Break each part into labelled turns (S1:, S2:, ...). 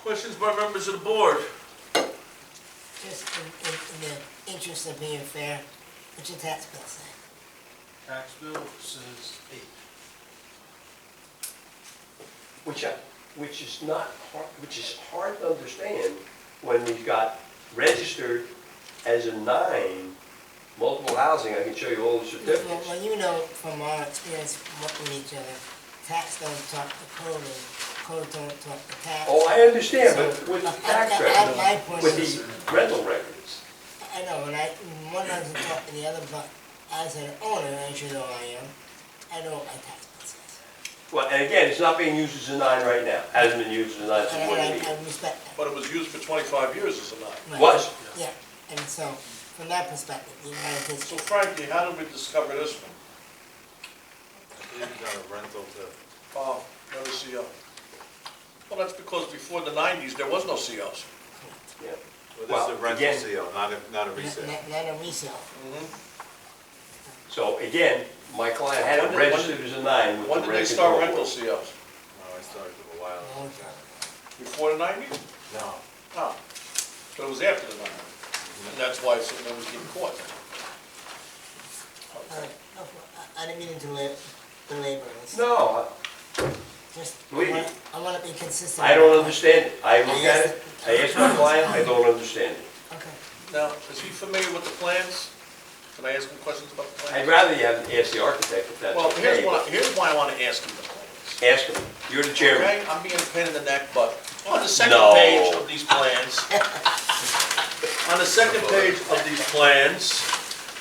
S1: Questions by members of the board?
S2: Just in, in, in the interest of being fair, what's your tax bill say?
S3: Tax bill says eight.
S4: Which, I- which is not, har- which is hard to understand when we've got registered as a nine, multiple housing, I can show you all the
S2: Well,
S4: certificates.
S2: well, you know from our experience working with each other, tax don't talk to code, and code don't talk to tax.
S4: Oh, I understand, but
S2: So,
S4: with the
S2: I- I-
S4: tax
S2: I- my
S4: records,
S2: point
S4: with
S2: is-
S4: the rental records,
S2: I know, and I, one doesn't talk to the other, but as an owner, as you know I am, I know what my tax bill says.
S4: well, and again, it's not being used as a nine right now, hasn't been used as a nine since
S2: And I,
S4: twenty
S2: I- I respect that.
S1: But it was used for 25 years as a nine.
S2: Right.
S4: Was,
S2: Yeah, and so, from that perspective, the United States.
S1: So frankly, how did we discover this one? Oh, never CO. Well, that's because before the 90s, there was no COs.
S4: yeah.
S5: Well, this is a
S4: Well,
S5: rental
S4: again-
S5: seal, not a, not a resale.
S2: Not, not a resale.
S4: So again, my client had
S1: When
S4: it
S1: did- when
S4: registered as a nine with the
S1: When
S4: rent
S1: did they
S4: control
S1: start rental
S4: board.
S1: COs?
S5: No, Oh, I started a while.
S2: Long time.
S1: Before the 90s?
S5: No.
S1: No. But it was after the 90s. And that's why it's- it was getting caught.
S2: All right, no, I, I didn't mean to delay, belabor this.
S4: No,
S2: Just, I
S4: Believe
S2: wanna-
S4: me.
S2: I wanna be consistent.
S4: I don't understand it. I look at it, I ask my client, I don't understand it.
S2: Okay.
S1: Now, is he familiar with the plans? Can I ask him questions about the
S4: I'd
S1: plans?
S4: rather you have, ask the E architect if that's
S1: Well, here's
S4: okay.
S1: why, here's why I want to ask him the plans.
S4: but Ask him. You're the chairman.
S1: Okay, I'm being a pain in the neck, but on the second
S4: No.
S1: page of these plans, on the second page of these plans,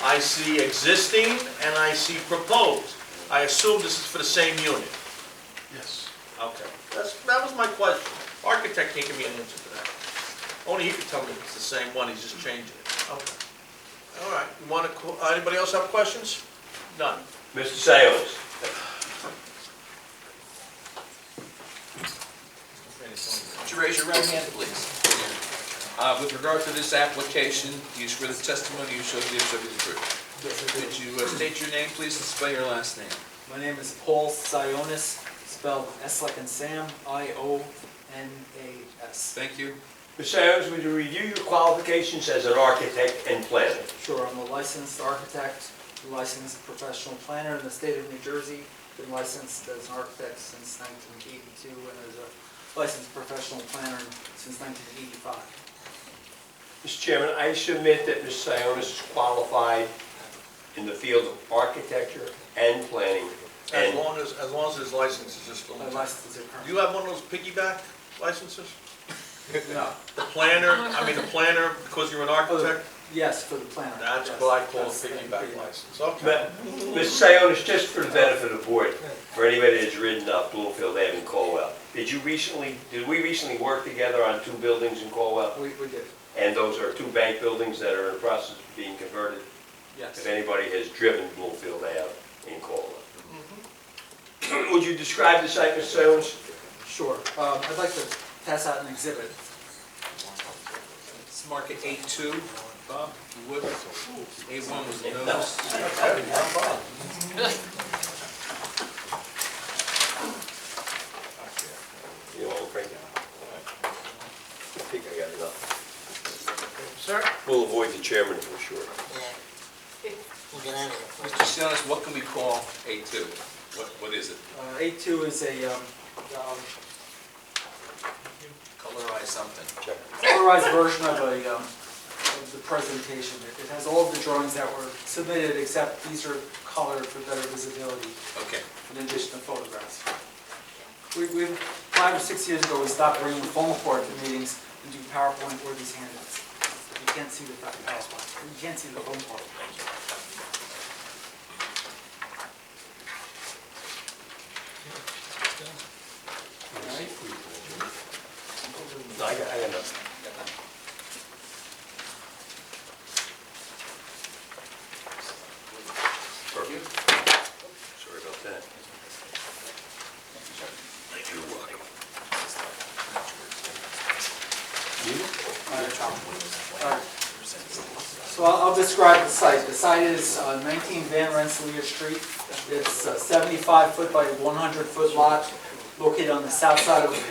S1: I see existing and I see proposed. I assume this is for the same unit.
S3: Yes.
S1: Okay. That's, that was my question. Architect can't give me an answer to that. Only he could tell me it's the same one, he's just changing it. Okay. All right, you wanna, qu- uh, anybody else have questions? None.
S4: Mr. Sayles.
S6: Would you raise your right hand, please? Uh, With regard to this application, do you swear the testimony you shall give shall be the truth? Could you uh, state your name, please, and spell your last name?
S7: My name is Paul Sionis, spelled S like in Sam, I-O-N-A-S.
S6: Thank you.
S4: Mr. Sayles, would you review your qualifications as an architect and planner?
S7: Sure, I'm a licensed architect, licensed professional planner in the state of New Jersey. Been licensed as an architect since 1982 and as a licensed professional planner since 1985.
S4: Mr. Chairman, I submit that Mr. Sionis is qualified in the field of architecture and planning.
S1: As
S4: And
S1: long as, as long as his license is just a
S7: My
S1: little.
S7: license is
S1: Do you have one of those piggyback licenses?
S7: current. No.
S1: The planner, I mean, the planner, because you're an architect?
S7: Yes, for the planner.
S1: That's
S7: Yes,
S1: what I call a
S7: that's-
S1: piggyback license,
S4: Ma-
S1: okay.
S4: Mr. Sionis, just for the benefit of the board, for anybody that's ridden up Bloomfield Ave in Colwell, did you recently, did we recently work together on two buildings in Colwell?
S7: We, we did,
S4: And those are two bank buildings that are in the process of being converted.
S7: yes.
S4: If anybody has driven Bloomfield Ave in Colwell. Mm-hmm. Would you describe the site, Mr. Sionis?
S7: Sure. Um, I'd like to pass out an exhibit.
S6: Let's mark it A2, Bob, if you would. A1 was noticed.
S4: You know, Frank? I think I got enough.
S1: Sir?
S4: We'll avoid the chairman for sure.
S2: Yeah. We'll get out of here.
S6: Mr. Sionis, what can we call A2? What, what is it?
S7: Uh, A2 is a um, um,
S6: Colorize something.
S7: colorized version of a, um, of the presentation. It it has all of the drawings that were submitted, except these are colored for better visibility,
S6: Okay.
S7: in addition to photographs. We, we, five or six years ago, we stopped bringing foam board to meetings and do PowerPoint or these handouts. You can't see the PowerPoint, you can't see the foam board.
S4: No, I got, I got enough. Perfect. Sorry about that. You're welcome.
S7: So I'll I'll describe the site. The site is uh, 19 Van Rensselaer Street. It's a 75-foot by 100-foot lot located on the south side of